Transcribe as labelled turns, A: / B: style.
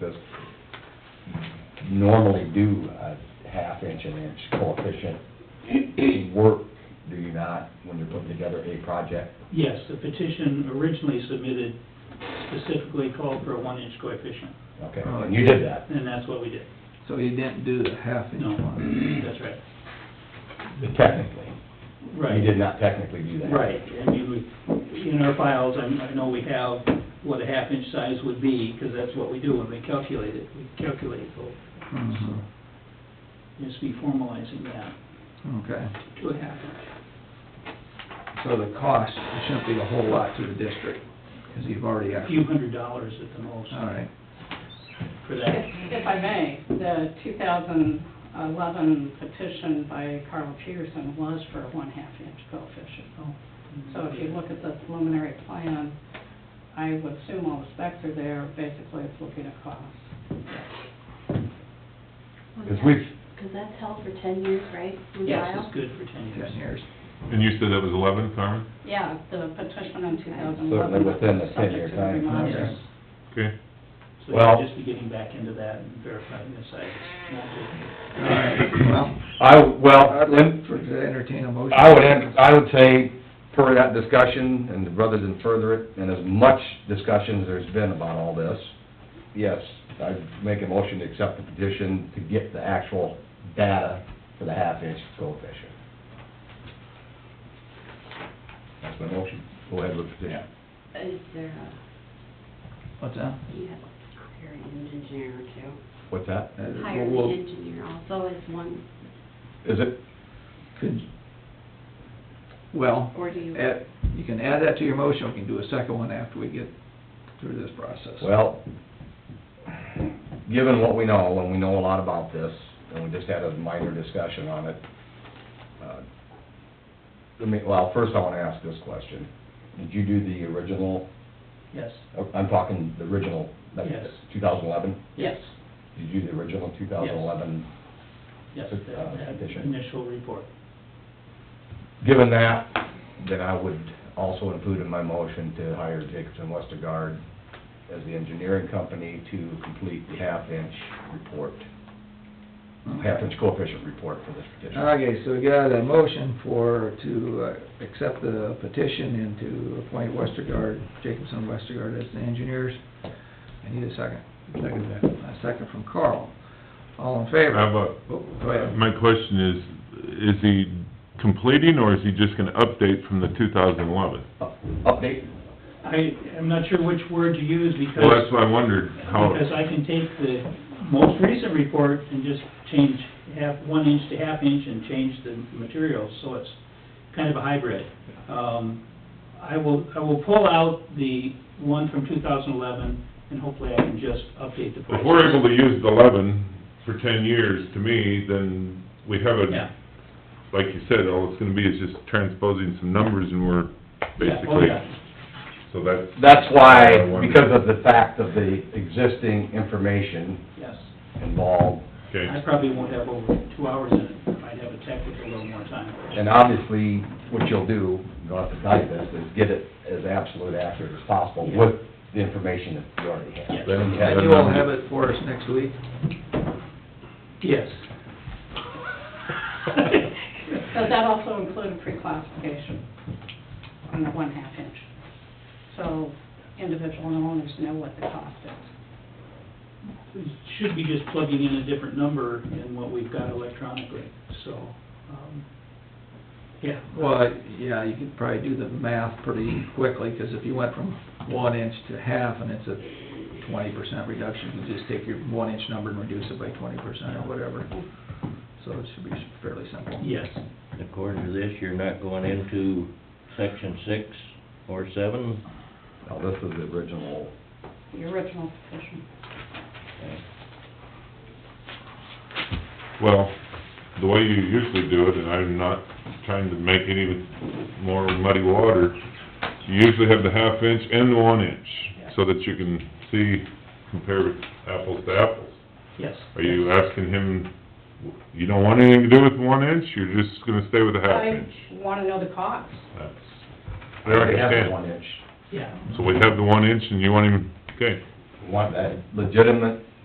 A: this normally do a half inch and inch coefficient work, do you not, when you're putting together a project?
B: Yes, the petition originally submitted specifically called for a one-inch coefficient,
A: Okay, and you did that.
B: and that's what we did.
C: So you didn't do the half inch
B: No,
C: one?
B: that's right.
A: Technically.
B: Right.
A: You did not technically do that.
B: Right, I mean, we, in our files, I I know we have what a half inch size would be, because that's what we do when we calculate it, we calculate both.
C: Mhm.
B: Just be formalizing that
C: Okay,
B: to a half inch.
C: so the cost shouldn't be a whole lot to the district, because you've already,
B: A few hundred dollars at the most
C: all right.
B: for
D: If
B: that.
D: if I may, the 2011 petition by Carl Peterson was for a one-half inch coefficient.
B: Oh,
D: So if you look at the preliminary plan, I would assume all the specs are there, basically it's looking at cost.
A: Because we've,
E: Because that's held for ten years, right? in
B: Yes,
E: Ohio?
B: it's good for ten years.
C: Ten years.
F: And you said that was eleven, Carmen?
D: Yeah, the petition in 2011.
A: Certainly within the
D: was
A: 10-year
D: subject to the
A: time.
D: reminders.
F: Okay.
B: So
A: Well-
B: you'll just be getting back into that and verifying the size.
C: All right, well,
A: I, well,
C: I'd
A: let-
C: like for- to entertain a motion.
A: I would, ent- I would say, per that discussion, and rather than further it, and as much discussion as there's been about all this, yes, I'd make a motion to accept the petition to get the actual data for the half-inch coefficient. That's my motion. Go ahead with the petition.
E: Is there a,
C: What's that?
E: you have a hiring engineer too?
A: What's that?
C: Uh,
E: Hiring
C: we'll-
E: engineer also is one,
A: Is it?
C: Could, well,
E: or do you?
C: add, you can add that to your motion, we can do a second one after we get through this process.
A: Well, given what we know, and we know a lot about this, and we just had a minor discussion on it, uh, let me, well, first I want to ask this question. Did you do the original, uh,
B: Yes,
A: I'm talking the original, that's
B: Yes.
A: 2011?
B: yes,
A: Did you do the original 2011?
B: yes,
A: Uh,
B: that that
A: petition.
B: initial report.
A: Given that, then I would also include in my motion to hire Jacobson Westergaard as the engineering company to complete the half-inch report, half-inch coefficient report for this petition.
C: Okay, so we got a motion for, to uh, accept the petition and to appoint Westergaard, Jacobson Westergaard as the engineers. I need a second. Second. A second from Carl. All in favor?
F: How about,
C: Oh, Go ahead.
F: my question is, is he completing or is he just gonna update from the two thousand eleven?
A: Update,
B: I, I'm not sure which word to use because.
F: Well, that's why I wondered how,
B: Because I can take the most recent report and just change half, one inch to half inch and change the materials, so it's kind of a hybrid. Um, I will, I will pull out the one from two thousand eleven, and hopefully I can just update the price.
F: if we're able to use the eleven for ten years, to me, then we have
B: Yeah.
F: a, like you said, all it's gonna be is just transposing some numbers and we're
B: Yeah, oh,
F: basically,
B: yeah.
F: so that's.
A: that's why,
F: I wondered.
A: because of the fact of the existing information
B: Yes.
A: involved,
B: I
F: Okay,
B: probably won't have over two hours in it, I might have a technical a little more time.
A: and obviously, what you'll do, you don't have to tell you this, is get it as absolute accurate as possible with the information that you already
B: Yes.
A: have.
F: Then-
A: Okay.
C: And you will have it for us next week?
B: Yes.
D: Does that also include a pre-classification on the one-half inch? So individual owners know what the cost is.
B: should be just plugging in a different number than what we've got electronically, so, um, yeah.
C: Well, yeah, you could probably do the math pretty quickly, because if you went from one inch to half and it's a twenty percent reduction, you just take your one inch number and reduce it by twenty percent or whatever. So it should be fairly simple.
B: Yes,
G: According to this, you're not going into section six or seven?
A: Now, this is the original,
D: The original petition.
F: well, the way you usually do it, and I'm not trying to make any more muddy water, you usually have the half inch and the one inch, so that you can see, compare apples to apples.
B: yes.
F: Are you asking him, you don't want anything to do with one inch, you're just gonna stay with the half inch?
D: I wanna know the cost.
F: That's,
A: I
F: I
A: already have the
F: understand.
A: one inch.
B: Yeah,
F: So we have the one inch and you want him, okay,
A: Want that legitimate